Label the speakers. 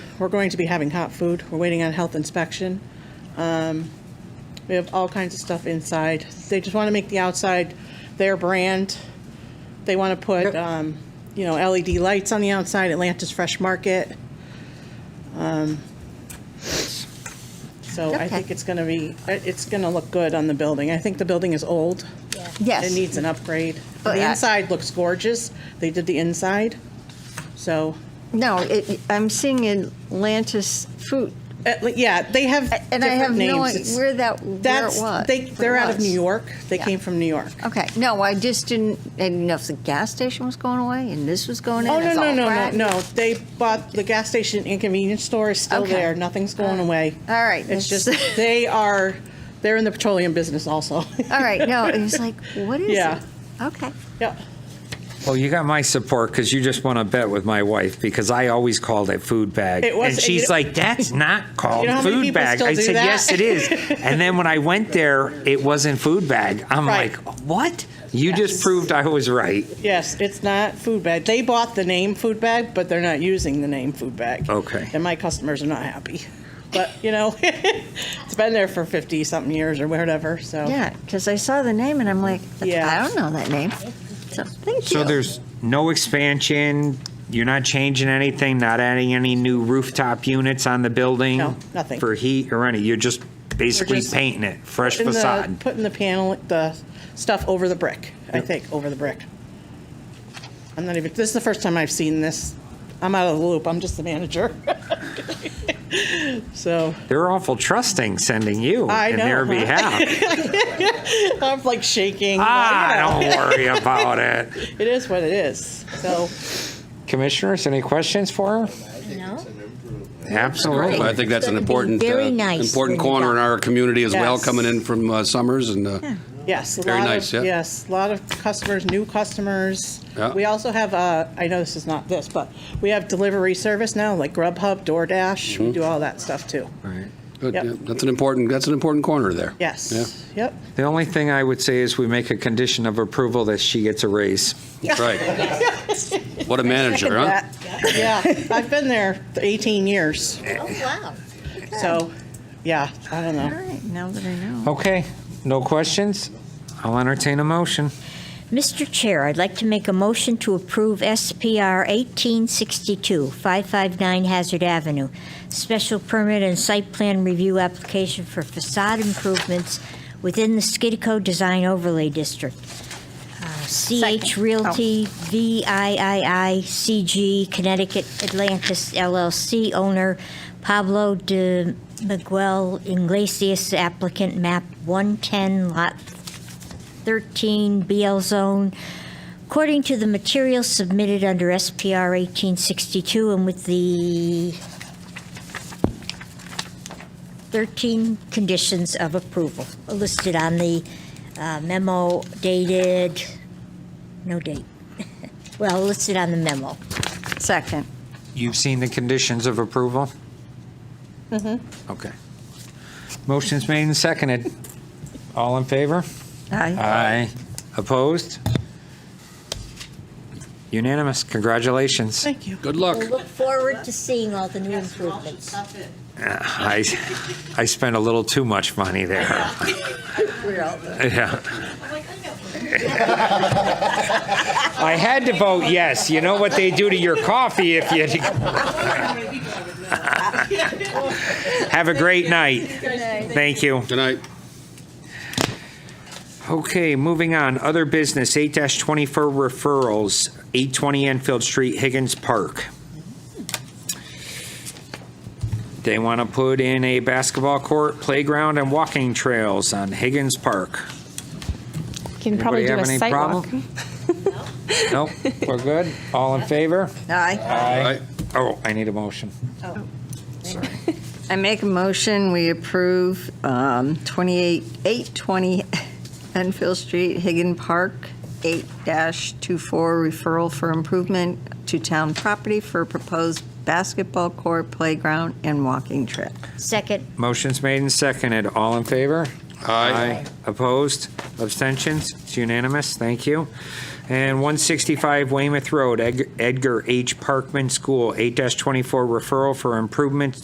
Speaker 1: We're going to be having hot food. We're waiting on health inspection. Um, We have all kinds of stuff inside. They just want to make the outside their brand. They want to put,
Speaker 2: Yep.
Speaker 1: um, you know, LED lights on the outside, Atlantis Fresh Market. Um, So I
Speaker 2: Okay.
Speaker 1: think it's going to be, it's going to look good on the building. I think the building is old. It
Speaker 2: Yes,
Speaker 1: needs an upgrade.
Speaker 2: Oh,
Speaker 1: The
Speaker 2: yeah.
Speaker 1: inside looks gorgeous. They did the inside. So,
Speaker 2: no, it, I'm seeing Atlantis Food,
Speaker 1: at le- Uh, yeah, they have
Speaker 2: and I have
Speaker 1: different
Speaker 2: no,
Speaker 1: names.
Speaker 2: idea
Speaker 1: It's-
Speaker 2: where that, where it
Speaker 1: That's,
Speaker 2: was.
Speaker 1: they,
Speaker 2: what it
Speaker 1: they're out of
Speaker 2: was.
Speaker 1: New York. They
Speaker 2: Yeah.
Speaker 1: came from New York.
Speaker 2: Okay, no, I just didn't, I didn't know if the gas station was going away and this was going in.
Speaker 1: Oh, no,
Speaker 2: it's
Speaker 1: no,
Speaker 2: all
Speaker 1: no, no,
Speaker 2: brand-
Speaker 1: no. They bought, the gas station and convenience store is still
Speaker 2: Okay.
Speaker 1: there. Nothing's going away.
Speaker 2: All right.
Speaker 1: It's just,
Speaker 2: that's-
Speaker 1: they are, they're in the petroleum business also.
Speaker 2: All right, no, it was like, what is
Speaker 1: Yeah.
Speaker 2: it? Okay,
Speaker 1: Yeah.
Speaker 3: Well, you got my support because you just won a bet with my wife because I always called it food bag.
Speaker 1: It was-
Speaker 3: and she's
Speaker 1: you know-
Speaker 3: like, that's not called
Speaker 1: You know how many
Speaker 3: food
Speaker 1: people
Speaker 3: bag.
Speaker 1: still
Speaker 3: I
Speaker 1: do
Speaker 3: said,
Speaker 1: that?
Speaker 3: yes, it is. and then when I went there, it wasn't food bag. I'm
Speaker 1: Right.
Speaker 3: like, what? You just proved I was right.
Speaker 1: Yes, it's not food bag. They bought the name food bag, but they're not using the name food bag.
Speaker 3: Okay.
Speaker 1: And my customers are not happy. But, you know, it's been there for 50 something years or whatever, so.
Speaker 2: yeah, because I saw the name and I'm like, I
Speaker 1: Yeah.
Speaker 2: don't know that name. So, thank you.
Speaker 3: So there's no expansion. You're not changing anything, not adding any new rooftop units on the building?
Speaker 1: No, nothing.
Speaker 3: For heat or any. You're just basically
Speaker 1: just
Speaker 3: painting it, fresh
Speaker 1: Putting the-
Speaker 3: facade.
Speaker 1: Putting the panel, the stuff over the brick, I think, over the brick. I'm not even, this is the first time I've seen this. I'm out of the loop. I'm just the manager. So
Speaker 3: They're awful trusting sending you
Speaker 1: I
Speaker 3: in
Speaker 1: know,
Speaker 3: their
Speaker 1: huh?
Speaker 3: behalf.
Speaker 1: I'm like shaking.
Speaker 3: Ah,
Speaker 1: You know,
Speaker 3: don't worry about it.
Speaker 1: It is what it is. So,
Speaker 3: Commissioners, any questions for her?
Speaker 4: No?
Speaker 3: Absolutely.
Speaker 5: I think that's an
Speaker 4: It's gonna be
Speaker 5: important, uh,
Speaker 4: very nice
Speaker 5: important
Speaker 4: when you're
Speaker 5: corner in
Speaker 4: done.
Speaker 5: our community as well,
Speaker 1: Yes.
Speaker 5: coming in from uh, Summers and, uh,
Speaker 1: Yes. a
Speaker 5: Very
Speaker 1: lot of-
Speaker 5: nice, yeah.
Speaker 1: Yes, a lot of customers, new customers.
Speaker 5: Yeah.
Speaker 1: We also have, uh, I know this is not this, but we have delivery service now, like Grubhub, DoorDash,
Speaker 5: Mm-hmm.
Speaker 1: we do all that stuff too.
Speaker 5: good,
Speaker 1: Yep.
Speaker 5: yeah, that's an important, that's an important corner there.
Speaker 1: Yes,
Speaker 5: Yeah,
Speaker 1: yep.
Speaker 3: The only thing I would say is we make a condition of approval that she gets a raise.
Speaker 5: That's right. What a manager, huh?
Speaker 1: That- Yeah, I've been there 18 years,
Speaker 4: Oh, wow.
Speaker 1: so, yeah, I don't
Speaker 2: All
Speaker 1: know.
Speaker 2: right, now that I know.
Speaker 3: Okay, no questions? I'll entertain a motion.
Speaker 4: Mr. Chair, I'd like to make a motion to approve SPR 1862, 559 Hazard Avenue, special permit and site plan review application for facade improvements within the Skidco Design Overlay District. Uh, CH Realty VIII CG Connecticut Atlantis LLC owner Pablo de Miguel Iglesias applicant map 110 lot 13 BL zone. According to the materials submitted under SPR 1862 and with the 13 conditions of approval listed on the uh, memo dated, no date. Well, listed on the memo.
Speaker 2: Second.
Speaker 3: You've seen the conditions of approval? Mm-hmm. Okay. Motion's made and seconded. All in favor?
Speaker 2: Aye.
Speaker 3: Aye. Opposed? Unanimous. Congratulations.
Speaker 1: Thank you.
Speaker 5: Good luck.
Speaker 4: We'll look forward to seeing all the new improvements.
Speaker 3: I, I spent a little too much money there. Yeah. I had to vote yes. You know what they do to your coffee if you. Have a great night. Thank you.
Speaker 5: Good night.
Speaker 3: Okay, moving on. Other business, 8-24 referrals, 820 Enfield Street, Higgins Park. They want to put in a basketball court, playground, and walking trails on Higgins Park.
Speaker 6: Can probably do
Speaker 3: Anybody have any
Speaker 6: a site walk.
Speaker 3: problem? Nope, we're good? All in favor?
Speaker 2: Aye.
Speaker 5: Aye.
Speaker 3: Oh, I need a motion.
Speaker 2: I make a motion, we approve um, 28, 820 Enfield Street, Higgin Park, 8-24 referral for improvement to town property for proposed basketball court, playground, and walking trail.
Speaker 4: Second,
Speaker 3: Motion's made and seconded. All in favor?
Speaker 5: Aye.
Speaker 3: Opposed? Abstentions? It's unanimous. Thank you. And 165 Weymouth Road, Ed- Edgar H. Parkman School, 8-24 referral for improvements